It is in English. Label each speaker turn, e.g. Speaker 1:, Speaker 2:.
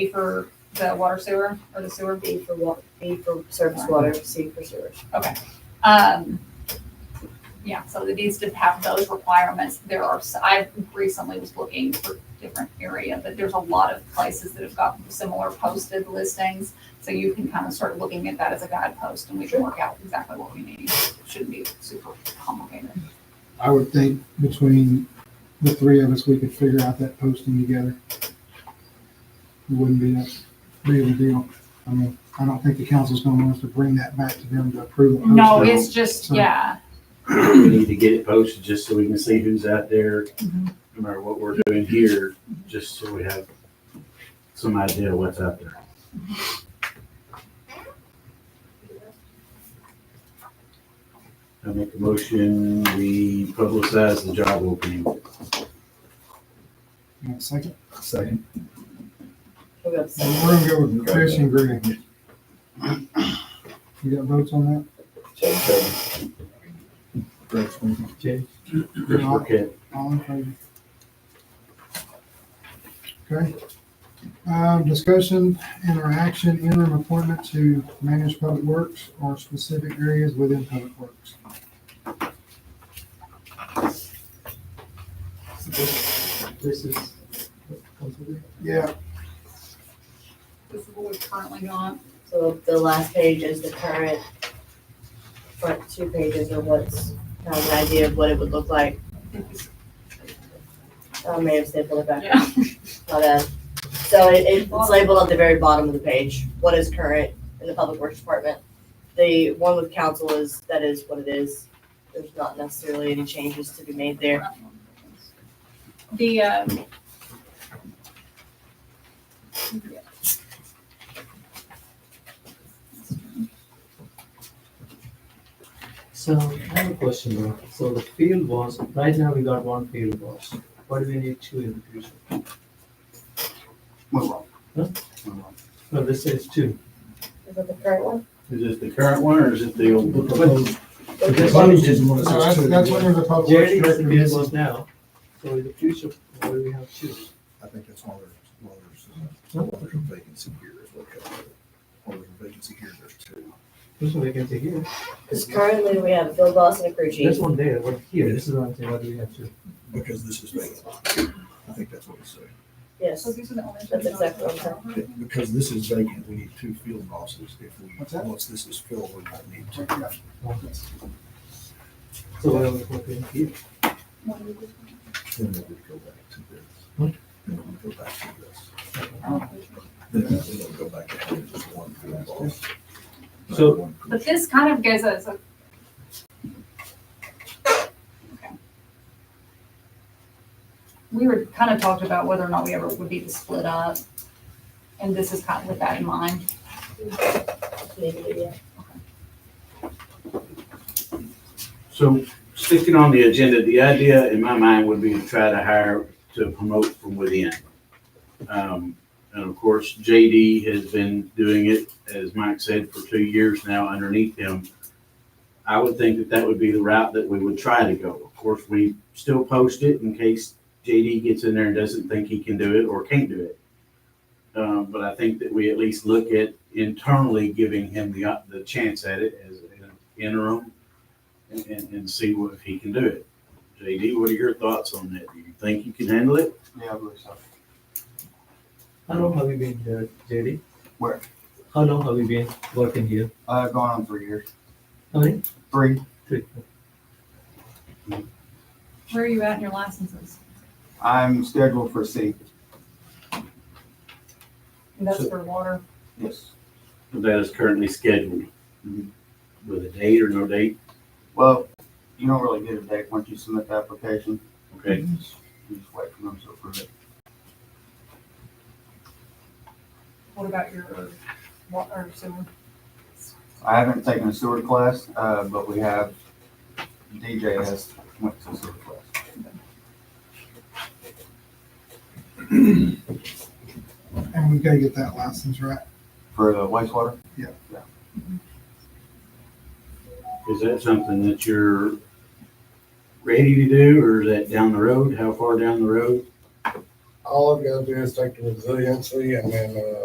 Speaker 1: be for the water sewer or the sewer.
Speaker 2: B for water, B for surface water, C for sewers.
Speaker 1: Um, yeah, so it needs to have those requirements. There are, s- I recently was looking for different area, but there's a lot of places that have got similar posted listings. So you can kind of start looking at that as a guidepost and we can work out exactly what we need. It Shouldn't be super complicated.
Speaker 3: I would think between the three of us, we could figure out that posting together. It wouldn't be that big of a deal. I mean, I don't think the council's gonna want us to bring that back to them to approve. a
Speaker 1: No,
Speaker 3: posting.
Speaker 1: it's just, yeah,
Speaker 4: We need to get it posted just so we can see who's out there, no matter what we're doing here, just so we have some idea what's out there. I make a motion, we publicize the job opening.
Speaker 3: You want a Second,
Speaker 5: Second.
Speaker 2: We'll go to second.
Speaker 3: we're gonna go with Chris and Greg. You got votes on
Speaker 5: Greg Swinton. Jay.
Speaker 3: that? All-
Speaker 4: Okay,
Speaker 3: All in favor? Okay. Um, discussion and or action interim appointment to manage public works or specific areas within public works.
Speaker 5: This is what comes with it.
Speaker 3: Yeah,
Speaker 1: this is what we've currently got.
Speaker 2: So the last page is the current, front two pages are what's, kind of an idea of what it would look like. I may have stapled it back,
Speaker 1: Yeah.
Speaker 2: my bad. So it, it's labeled at the very bottom of the page, what is current in the Public Works Department. The one with council is, that is what it is. There's not necessarily any changes to be made there.
Speaker 1: The, um.
Speaker 6: So I have a question now. So the field was, right now we got one field was. What do we need two in the future?
Speaker 4: move on.
Speaker 6: Huh?
Speaker 4: Move on.
Speaker 6: No, this says two.
Speaker 2: Is that the current one?
Speaker 4: Is it the current one or is it the old?
Speaker 6: But
Speaker 5: The
Speaker 6: this one
Speaker 5: proposed
Speaker 6: is,
Speaker 5: is
Speaker 3: so
Speaker 5: one that
Speaker 3: that's,
Speaker 5: says two.
Speaker 3: that's under the public works
Speaker 6: JD is the
Speaker 3: director.
Speaker 6: field
Speaker 3: This-
Speaker 6: was now. So in the future, what do we have two?
Speaker 5: I think that's all there's, well, there's, uh, well, there's a vacancy here is what comes with it. Well, there's a vacancy here, there's two.
Speaker 6: This one vacancy here.
Speaker 2: Because currently we have Bill Boss and a crew chief.
Speaker 6: This one there, what here? This is what I'm saying. What do we have two?
Speaker 5: Because this is vacant. I think that's what it's saying.
Speaker 2: Yes. That's exactly what I'm saying.
Speaker 5: Yeah, Because this is vacant, we need two field bosses. If we,
Speaker 3: What's that?
Speaker 5: once this is filled, we might need two.
Speaker 6: So what are we putting here?
Speaker 5: Then we would go back to
Speaker 6: Hmm?
Speaker 5: this. Then we would go back to this. Then we would go back to having just one field boss.
Speaker 6: So-
Speaker 5: One crew
Speaker 1: But this kind of gives us uh, a. We were kind of talked about whether or not we ever would be to split up, and this is kind of with that in mind.
Speaker 2: Maybe, yeah.
Speaker 4: So sticking on the agenda, the idea in my mind would be to try to hire, to promote from within. Um, And of course, JD has been doing it, as Mike said, for two years now underneath him. I would think that that would be the route that we would try to go. Of course, we still post it in case JD gets in there and doesn't think he can do it or can't do it. Um, But I think that we at least look at internally giving him the, op- the chance at it as an interim and, and, and see what, if he can do it. JD, what are your thoughts on that? Do you think you can handle it?
Speaker 7: Yeah, I believe so.
Speaker 6: How long have you been here, JD?
Speaker 7: Where?
Speaker 6: How long have you been working here?
Speaker 7: Uh, going on three years.
Speaker 6: How many?
Speaker 7: Three.
Speaker 6: Three.
Speaker 1: Where are you at in your licenses?
Speaker 7: I'm scheduled for C.
Speaker 1: And that's for water.
Speaker 7: Yes.
Speaker 4: That is currently scheduled Mm-hmm.
Speaker 7: Mhm.
Speaker 4: with a date or no date,
Speaker 7: Well, you don't really get a date once you submit the application.
Speaker 4: okay?
Speaker 7: You just wait for them to approve it.
Speaker 1: What about your water sewer?
Speaker 7: I haven't taken a sewer class, uh, but we have, DJ has went to sewer class.
Speaker 3: And we gotta get that license right.
Speaker 7: For the wastewater,
Speaker 4: Is that something that you're ready to do or is that down the road? How far down the road?
Speaker 5: all I've got to do is take the resiliency and then, uh,